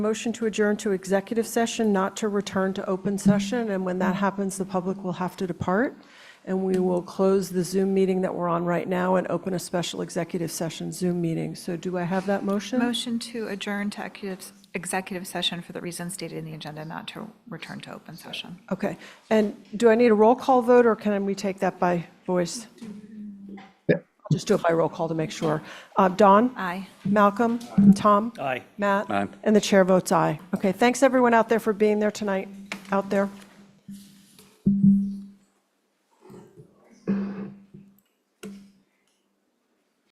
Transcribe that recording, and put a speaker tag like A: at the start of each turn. A: Motion to adjourn to executive session, not to return to open session, and when that happens, the public will have to depart, and we will close the Zoom meeting that we're on right now and open a special executive session Zoom meeting. So do I have that motion?
B: Motion to adjourn to executive- executive session for the reasons stated in the agenda, not to return to open session.
A: Okay, and do I need a roll call vote, or can we take that by voice? I'll Just do it by roll call to make sure. Uh, Don?
B: Aye.
A: Malcolm? Tom?
C: Aye.
A: Matt?
C: Aye.
A: And the chair votes aye. Okay, thanks everyone out there for being there tonight, out there.